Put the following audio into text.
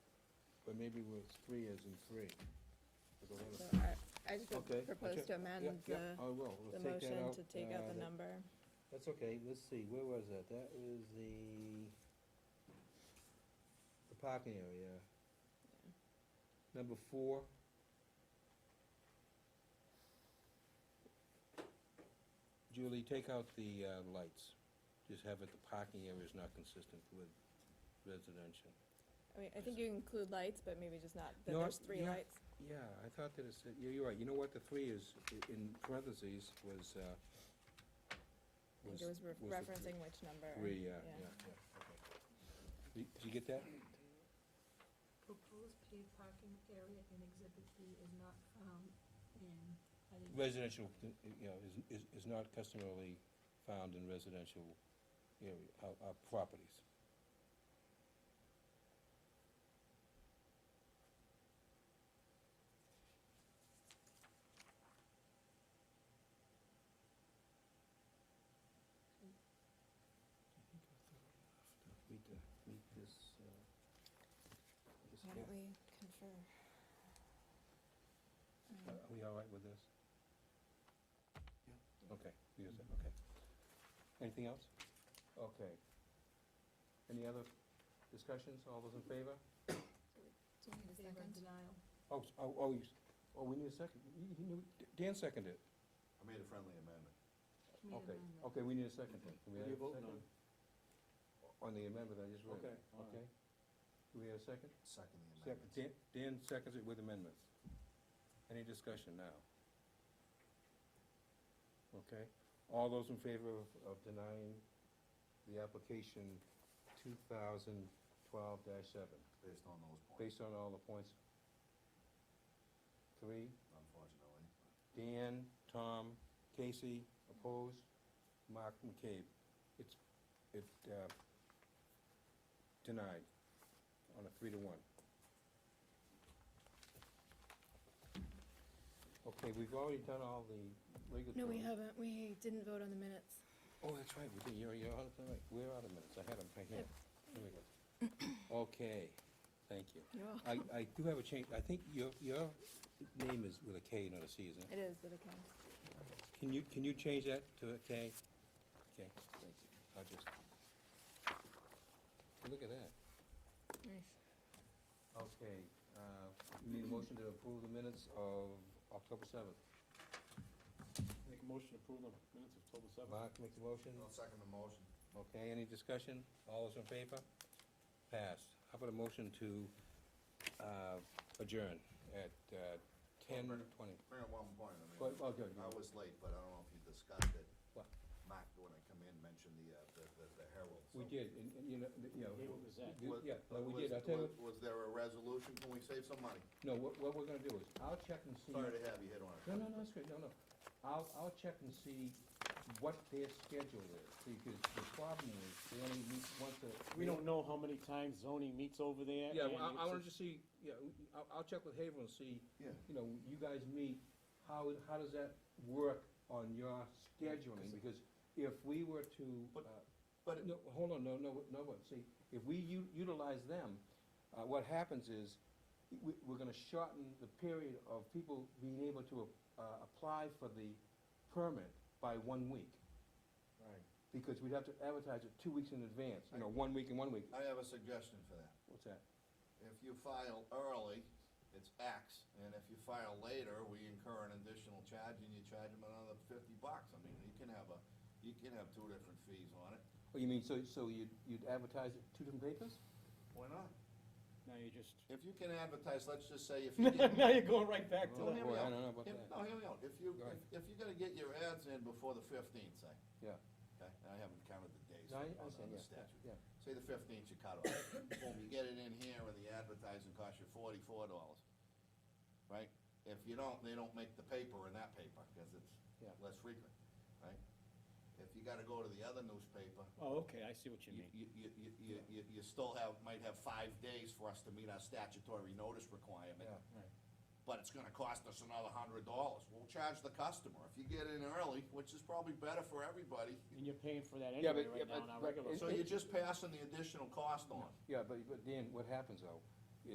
but maybe with three as in three. with the letter. So I, I just would Okay, propose okay. to amend Yeah, the, yeah, I will, the we'll take that motion out. to take out uh, the that- number. That's okay, let's see, where was that? That was the, the parking area. Number four. Julie, take out the, uh, lights. Just have it, the parking area is not consistent with residential. I mean, I think you include lights, but maybe just not, that No, there's three yeah. lights. Yeah, I thought that it said, you're, you're right, you know what, the three is, i- in parentheses, was, uh, I think was it was the re- three. referencing which number. three, yeah, yeah. yeah, yeah, okay. Did did you get that? Proposed paid parking area in Exhibit B is not found in, I didn't- Residential, you know, is, is, is not customarily found in residential area, uh, uh, properties. Read the, read this, uh, this Why here. don't we confer? Um, Are are we all right with this? Yeah. Okay, you guys are- okay. Anything else? Okay. Any other discussions? All those in favor? so in Need a favor second? of denial. Oh, s- oh, oh, you s- oh, we need a second. You- you knew- Dan seconded it. I made a friendly amendment. Community Okay, amendment. okay, we need a second then. Do we What are have a you voting second? On the amendment I just read. Okay. Do we have a second? Second the Second. amendment. Dan, Dan seconds it with amendments. Any discussion now? Okay, all those in favor of, of denying the application two thousand twelve seven, Based on those points, based on all the points? Three, unfortunately. Dan, Tom, Casey, opposed, Mark McCabe. It's, it, uh, denied on a three to one. Okay, we've already done all the regulatory. No, we haven't, we didn't vote on the minutes. Oh, that's right, we did, you're, you're out of, the right. we're out of minutes, I had them right here. Here we go. Okay, thank you. You're I, I do have a change, I think your, your name is with a K, not a C, isn't it? It is, but it counts. Can you, can you change that to a K? Okay, thank you. I'll just, look at that. Nice. Okay, uh, we need a motion to approve the minutes of October seventh. Make a motion to approve the minutes of October seventh. Mark makes a motion. I'll second the motion. Okay, any discussion? All those in favor? Passed. How about a motion to, uh, adjourn at, uh, ten twenty? Bring up one point, I Well, mean, well, good, I was late, but I don't know if you discussed it. What? Mark, when I come in, mentioned the, uh, the, the- the Herald. we so- did, and, and, you know, the- you know. Gave it to Zach. the- Was- Yeah, no, we was- did, I'll tell you, was- Was there a resolution? Can we save some money? no, what, what we're gonna do is, I'll check and see. Sorry to have you hit on it. No, no, no, it's good, no, no. I'll, I'll check and see what their schedule is, because the problem is, they only meet once a. We don't know how many times zoning meets over there. Yeah, and well, I, I it's wanna just- just see, yeah, I'll, I'll check with Haverhill and see, Yeah. you know, you guys meet, how, how does that work on your scheduling? Because if we were to, But- uh, But it- no, hold on, no, no, no, what, see, if we u- utilize them, uh, what happens is, we, we're gonna shorten the period of people being able to, uh, apply for the permit by one week. Right. Because we'd have to advertise it two weeks in advance, you know, one week and one week, I have a suggestion for that. what's that? If you file early, it's X, and if you file later, we incur an additional charge, and you charge them another fifty bucks. I mean, you can have a, you can have two different fees on it. Oh, you mean, so, so you'd, you'd advertise it two different papers? Why not? Now you're just. If you can advertise, let's just say if you get. Now you're going right back to Oh, Well, that. here boy, we I are. don't know about If, that. no, hear me out, if you, Go ahead. if- if you're gonna get your ads in before the fifteenth, say. Yeah. Okay, and I haven't counted the days No, I, on I on understand, the yeah, statute. yeah, Say the fifteenth you cut off, boom, you get it in here and the advertising costs you forty-four dollars, right? If you don't, they don't make the paper in that paper, cause it's Yeah. less frequent, right? If you gotta go to the other newspaper, Oh, okay, I see what you you, mean. you, you, you- you, you, you still have, might have five days for us to meet our statutory notice requirement. yeah. But it's gonna cost us another hundred dollars, we'll charge the customer, if you get in early, which is probably better for everybody, And you're paying for that Yeah, but- anyway yeah, right now but- on our but regular. it- so you're just passing the additional cost on. Yeah, but, but Dan, what happens though,